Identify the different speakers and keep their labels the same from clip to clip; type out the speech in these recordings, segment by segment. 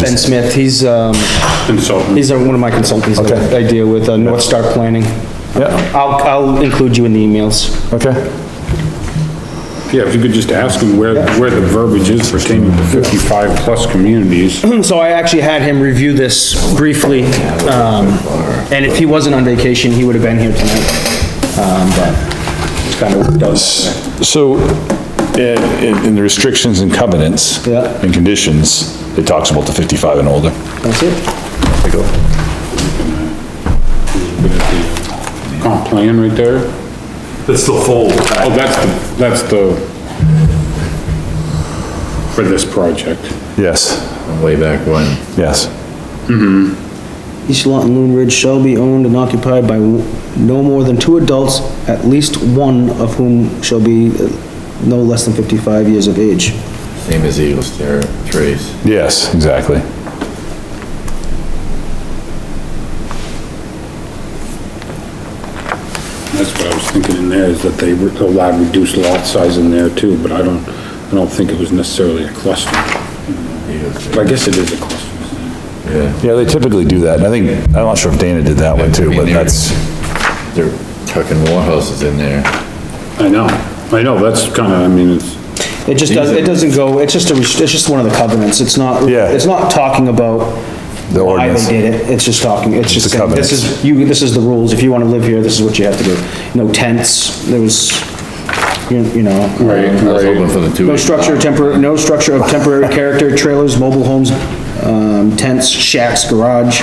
Speaker 1: Ben Smith, he's, um,
Speaker 2: consultant.
Speaker 1: he's uh, one of my consultants that I deal with, uh, North Star Planning.
Speaker 3: Yeah,
Speaker 1: I'll, I'll include you in the emails.
Speaker 3: okay.
Speaker 2: Yeah, if you could just ask him where, where the verbiage is pertaining to fifty-five plus communities.
Speaker 1: So I actually had him review this briefly, um, and if he wasn't on vacation, he would have been here tonight. Um, but it's kind of does.
Speaker 3: So, in, in- in the restrictions and covenants.
Speaker 1: Yeah.
Speaker 3: And conditions, it talks about the 55 and older.
Speaker 1: That's it.
Speaker 2: Comp Oh, plan right there?
Speaker 4: That's the full
Speaker 2: Oh, that's the, that's the, for this project.
Speaker 3: Yes,
Speaker 5: way back when.
Speaker 3: yes.
Speaker 1: Each lot in Loon Ridge shall be owned and occupied by no more than two adults, at least one of whom shall be uh, no less than fifty-five years of age.
Speaker 5: Same as Eagle Stair Trace.
Speaker 3: Yes, exactly.
Speaker 2: That's what I was thinking in there, is that they were allowed reduced lot size in there too, but I don't, I don't think it was necessarily a cluster. But I guess it is a cluster.
Speaker 5: Yeah.
Speaker 3: Yeah, they typically do that, and I think, I'm not sure if Dana did that one too, but that's,
Speaker 5: They're tucking more houses in there.
Speaker 2: I know, I know, that's kinda, I mean, it's,
Speaker 1: It just does, it doesn't go, it's just a, rest- it's just one of the covenants, it's not,
Speaker 3: Yeah.
Speaker 1: it's not talking about
Speaker 3: The
Speaker 1: why
Speaker 3: ordinance.
Speaker 1: they did it, it's just talking, it's just, saying, this
Speaker 3: covenants.
Speaker 1: is, you, this is the rules, if you wanna live here, this is what you have to do. No tents, there was, you you know,
Speaker 2: right,
Speaker 5: I was hoping
Speaker 2: right.
Speaker 5: for the two.
Speaker 1: no structure of tempor, no structure of temporary character, trailers, mobile homes, um, tents, shacks, garage,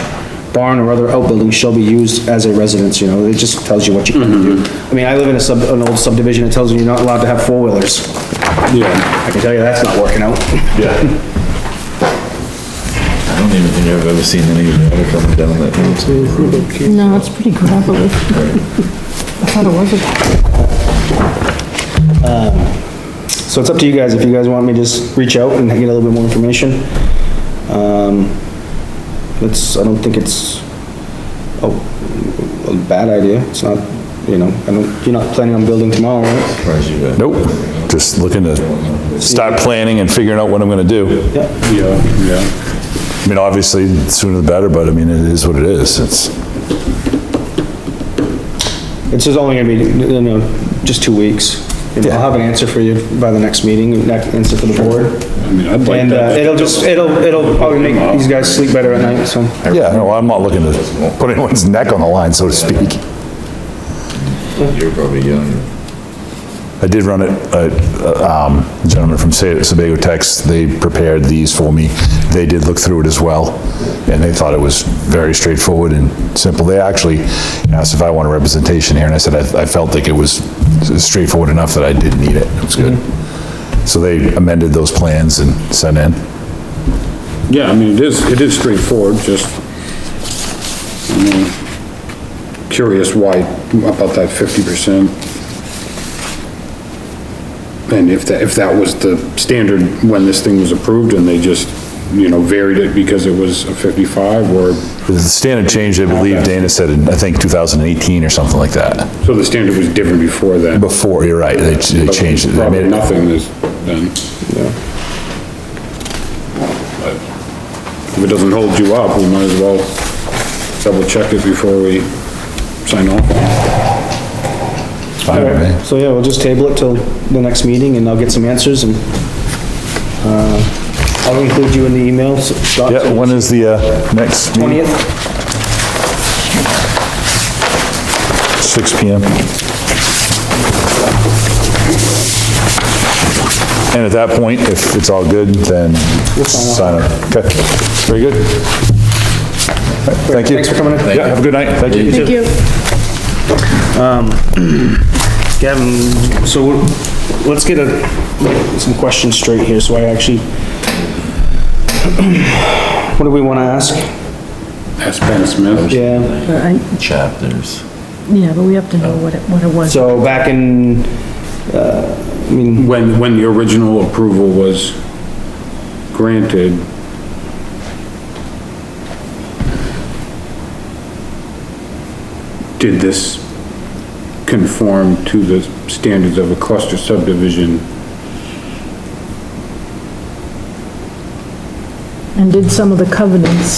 Speaker 1: barn or other outbuilding shall be used as a residence, you know, it just tells you what you can do. I mean, I live in a sub, an old subdivision, it tells you you're not allowed to have four-wheelers,
Speaker 2: Yeah,
Speaker 1: I can tell you that's not working out.
Speaker 3: yeah,
Speaker 5: I don't even think I've ever seen any gravel coming down that hill.
Speaker 6: No, it's pretty gravelly. I thought it was a
Speaker 1: So it's up to you guys, if you guys want me to just reach out and get a little bit more information. Um, it's, I don't think it's a, a bad idea, it's not, you know, I don't, you're not planning on building tomorrow, right?
Speaker 5: Surprised you got-
Speaker 3: nope, just looking to start planning and figuring out what I'm gonna do.
Speaker 1: Yeah,
Speaker 2: yeah, yeah.
Speaker 3: I mean, obviously, the sooner the better, but I mean, it is what it is, it's,
Speaker 1: it's just only gonna be, you know, just two weeks. You know, I'll have an answer for you by the next meeting, and that answer for the board.
Speaker 2: I mean, I'd like
Speaker 1: And, uh,
Speaker 2: that.
Speaker 1: it'll just, it'll, it'll probably make these guys sleep better at night, so.
Speaker 3: yeah, no, I'm not looking to put anyone's neck on the line, so to speak.
Speaker 5: You're probably young.
Speaker 3: I did run it, uh, um, a gentleman from Sa- Sebago Tex, they prepared these for me. They did look through it as well, and they thought it was very straightforward and simple. They actually asked if I want a representation here, and I said I I felt like it was straightforward enough that I didn't need it. It was good. So they amended those plans and
Speaker 2: Mm-hmm.
Speaker 3: sent in.
Speaker 2: Yeah, I mean, it is, it is straightforward, just, I mean, curious why, about that fifty percent. And if that, if that was the standard when this thing was approved and they just, you know, varied it because it was a fifty-five or,
Speaker 3: The standard change, I believe Dana said, in, I think 2018 or something like that.
Speaker 2: so the standard was different before then.
Speaker 3: Before, you're right, they they changed it. They
Speaker 2: Probably
Speaker 3: made it.
Speaker 2: nothing is then. But If it doesn't hold you up, we might as well double check it before we sign off.
Speaker 3: Fine with me.
Speaker 1: So yeah, we'll just table it till the next meeting and I'll get some answers and, uh, I'll include you in the emails.
Speaker 3: Yeah, when is the uh, next meeting?
Speaker 1: Twentieth,
Speaker 3: 6 PM. And at that point, if it's all good, then sign up. Okay, very good. All right, Thank you.
Speaker 1: thanks for coming in.
Speaker 3: Yeah, have a good night. Thank you.
Speaker 6: Thank you.
Speaker 1: Gavin, so let's get a, some questions straight here, so I actually. What do we wanna ask?
Speaker 2: Ask Ben Smith.
Speaker 1: Yeah,
Speaker 6: But I-
Speaker 5: Chapters.
Speaker 6: Yeah, but we have to know what it, what it was.
Speaker 1: so back in, uh,
Speaker 2: When, when the original approval was granted. Did this conform to the standards of a cluster subdivision?
Speaker 6: and did some of the covenants.